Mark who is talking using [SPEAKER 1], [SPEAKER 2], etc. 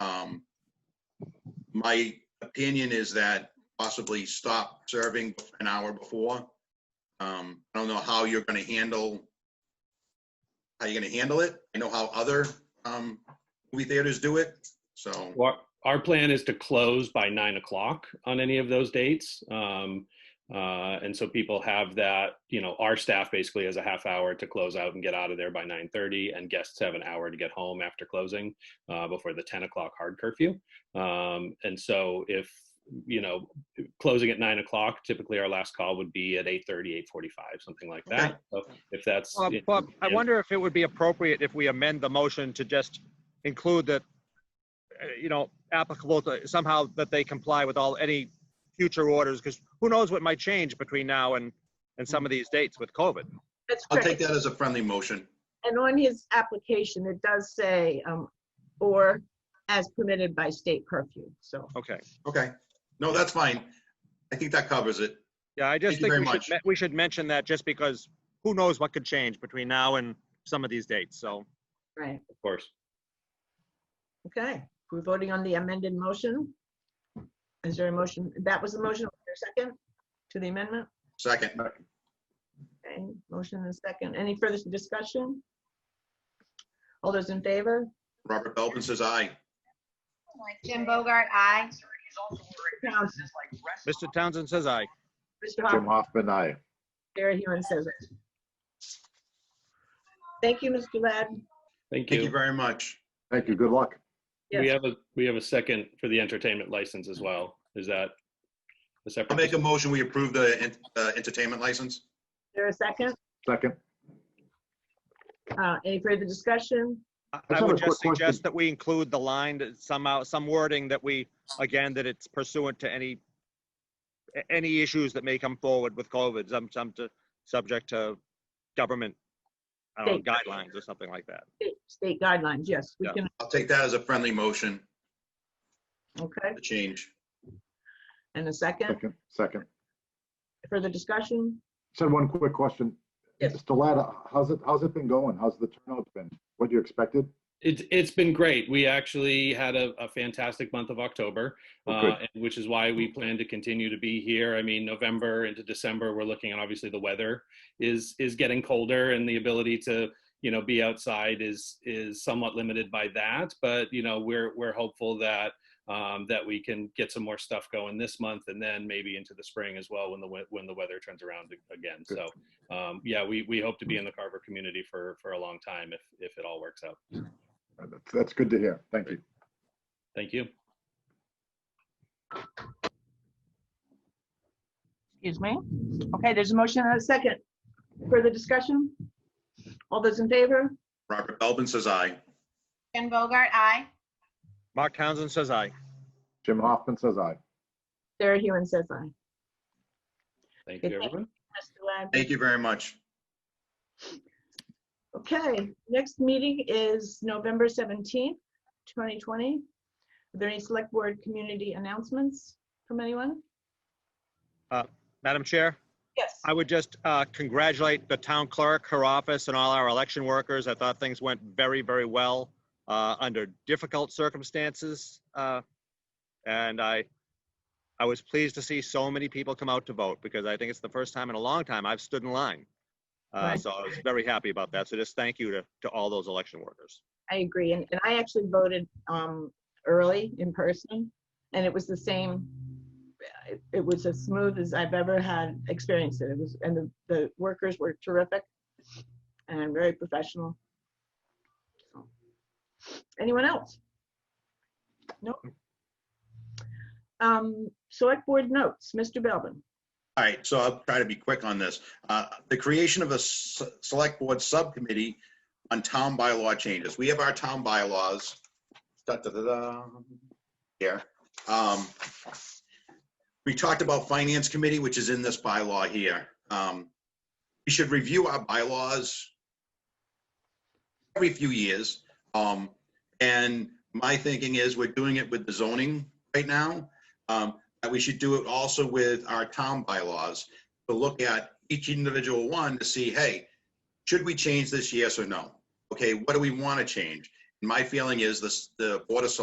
[SPEAKER 1] Um, My opinion is that possibly stop serving an hour before. Um, I don't know how you're gonna handle, how you're gonna handle it. I know how other um, movie theaters do it, so.
[SPEAKER 2] Well, our plan is to close by nine o'clock on any of those dates. Um, uh, and so people have that, you know, our staff basically has a half hour to close out and get out of there by 9.30 and guests have an hour to get home after closing uh, before the 10 o'clock hard curfew. Um, and so if, you know, closing at nine o'clock, typically our last call would be at 8.30, 8.45, something like that. So if that's...
[SPEAKER 3] Bob, Bob, I wonder if it would be appropriate if we amend the motion to just include that, uh, you know, applicable to somehow that they comply with all, any future orders, because who knows what might change between now and, and some of these dates with COVID.
[SPEAKER 4] That's
[SPEAKER 1] I'll take
[SPEAKER 4] correct.
[SPEAKER 1] that as a friendly motion.
[SPEAKER 4] And on his application, it does say, um, or as permitted by state curfew, so.
[SPEAKER 3] Okay.
[SPEAKER 1] Okay, no, that's fine. I think that covers it.
[SPEAKER 3] Yeah, I just
[SPEAKER 1] Thank you
[SPEAKER 3] think we
[SPEAKER 1] very
[SPEAKER 3] should, me- we should mention that just because who knows what could change between now and some of these dates, so.
[SPEAKER 4] Right,
[SPEAKER 2] Of course.
[SPEAKER 4] okay. We're voting on the amended motion. Is there a motion? That was the motion, Was there a second to the amendment?
[SPEAKER 1] Second,
[SPEAKER 4] Okay, motion and second. Any further discussion? All those in favor?
[SPEAKER 1] Robert Belvin says aye.
[SPEAKER 5] Jim Bogart, aye.
[SPEAKER 4] Townsend,
[SPEAKER 3] Mr. Townsend says aye.
[SPEAKER 4] Mr. Hoffman,
[SPEAKER 6] Jim Hoffman, aye.
[SPEAKER 4] Sarah Hewen says it. Thank you, Mr. Ladd.
[SPEAKER 2] Thank you.
[SPEAKER 1] Thank you very much.
[SPEAKER 6] Thank you. Good luck.
[SPEAKER 2] We
[SPEAKER 4] Yes.
[SPEAKER 2] have a, we have a second for the entertainment license as well. Is that a separate?
[SPEAKER 1] I'll make a motion, we approve the en- uh, entertainment license.
[SPEAKER 4] Is there a second?
[SPEAKER 6] Second.
[SPEAKER 4] Uh, Any further discussion?
[SPEAKER 3] I-
[SPEAKER 6] I
[SPEAKER 3] I
[SPEAKER 6] have a
[SPEAKER 3] would
[SPEAKER 6] quick
[SPEAKER 3] just
[SPEAKER 6] question.
[SPEAKER 3] suggest that we include the line that somehow, some wording that we, again, that it's pursuant to any, a- any issues that may come forward with COVID, some, some to, subject to government, I don't know,
[SPEAKER 4] Thank you.
[SPEAKER 3] guidelines or something like that.
[SPEAKER 4] State- State guidelines, yes, we
[SPEAKER 3] Yeah.
[SPEAKER 4] can,
[SPEAKER 1] I'll take that as a friendly motion,
[SPEAKER 4] okay.
[SPEAKER 1] the change.
[SPEAKER 4] And a second,
[SPEAKER 6] Second. Second.
[SPEAKER 4] further discussion?
[SPEAKER 6] Said one quick question.
[SPEAKER 4] Yes.
[SPEAKER 6] Mr. Latta, how's it, how's it been going? How's the turnout been? What you expected?
[SPEAKER 2] It's, it's been great. We actually had a, a fantastic month of October,
[SPEAKER 6] Oh,
[SPEAKER 2] uh,
[SPEAKER 6] good. Mm-hmm.
[SPEAKER 2] and- which is why we plan to continue to be here. I mean, November into December, we're looking at obviously the weather is, is getting colder and the ability to, you know, be outside is, is somewhat limited by that. But, you know, we're, we're hopeful that, um, that we can get some more stuff going this month and then maybe into the spring as well when the, we- when the weather turns around again. So, um, yeah, we, we hope to
[SPEAKER 6] Mm-hmm.
[SPEAKER 2] be in the Carver community for, for a long time if, if it all works out.
[SPEAKER 6] That's- That's good to hear. Thank you.
[SPEAKER 2] Thank you.
[SPEAKER 4] Excuse me? Okay, there's a motion and a second. Further discussion? All those in favor?
[SPEAKER 1] Robert Belvin says aye.
[SPEAKER 5] Jim Bogart, aye.
[SPEAKER 3] Mark Townsend says aye.
[SPEAKER 6] Jim Hoffman says aye.
[SPEAKER 4] Sarah Hewen says aye.
[SPEAKER 2] Thank you,
[SPEAKER 4] Good.
[SPEAKER 2] everyone.
[SPEAKER 4] Mr. Lab?
[SPEAKER 1] Thank you very much.
[SPEAKER 4] Okay, next meeting is November 17th, 2020. Are there any select board community announcements from anyone?
[SPEAKER 3] Madam Chair?
[SPEAKER 4] Yes.
[SPEAKER 3] I would just uh, congratulate the town clerk, her office, and all our election workers. I thought things went very, very well uh, under difficult circumstances. uh, And I, I was pleased to see so many people come out to vote because I think it's the first time in a long time I've stood in line. Uh,
[SPEAKER 4] Right.
[SPEAKER 3] So I was very happy about that. So just thank you to, to all those election workers.
[SPEAKER 4] I agree, and, and I actually voted um, early in person, and it was the same. It, it was as smooth as I've ever had experienced it. It was, and the, the workers were terrific, and very professional. So, Anyone else? No. Um, select board notes, Mr. Belbin.
[SPEAKER 1] All right, so I'll try to be quick on this. Uh, The creation of a s- select board subcommittee on town bylaw changes. We have our town bylaws. Da, da, da, da, Here. Um, We talked about finance committee, which is in this bylaw here. Um, We should review our bylaws every few years. Um, And my thinking is we're doing it with the zoning right now. Um, that we should do it also with our town bylaws, to look at each individual one to see, hey, should we change this, yes or no? Okay, what do we want to change? My feeling is this, the Board of Selectmen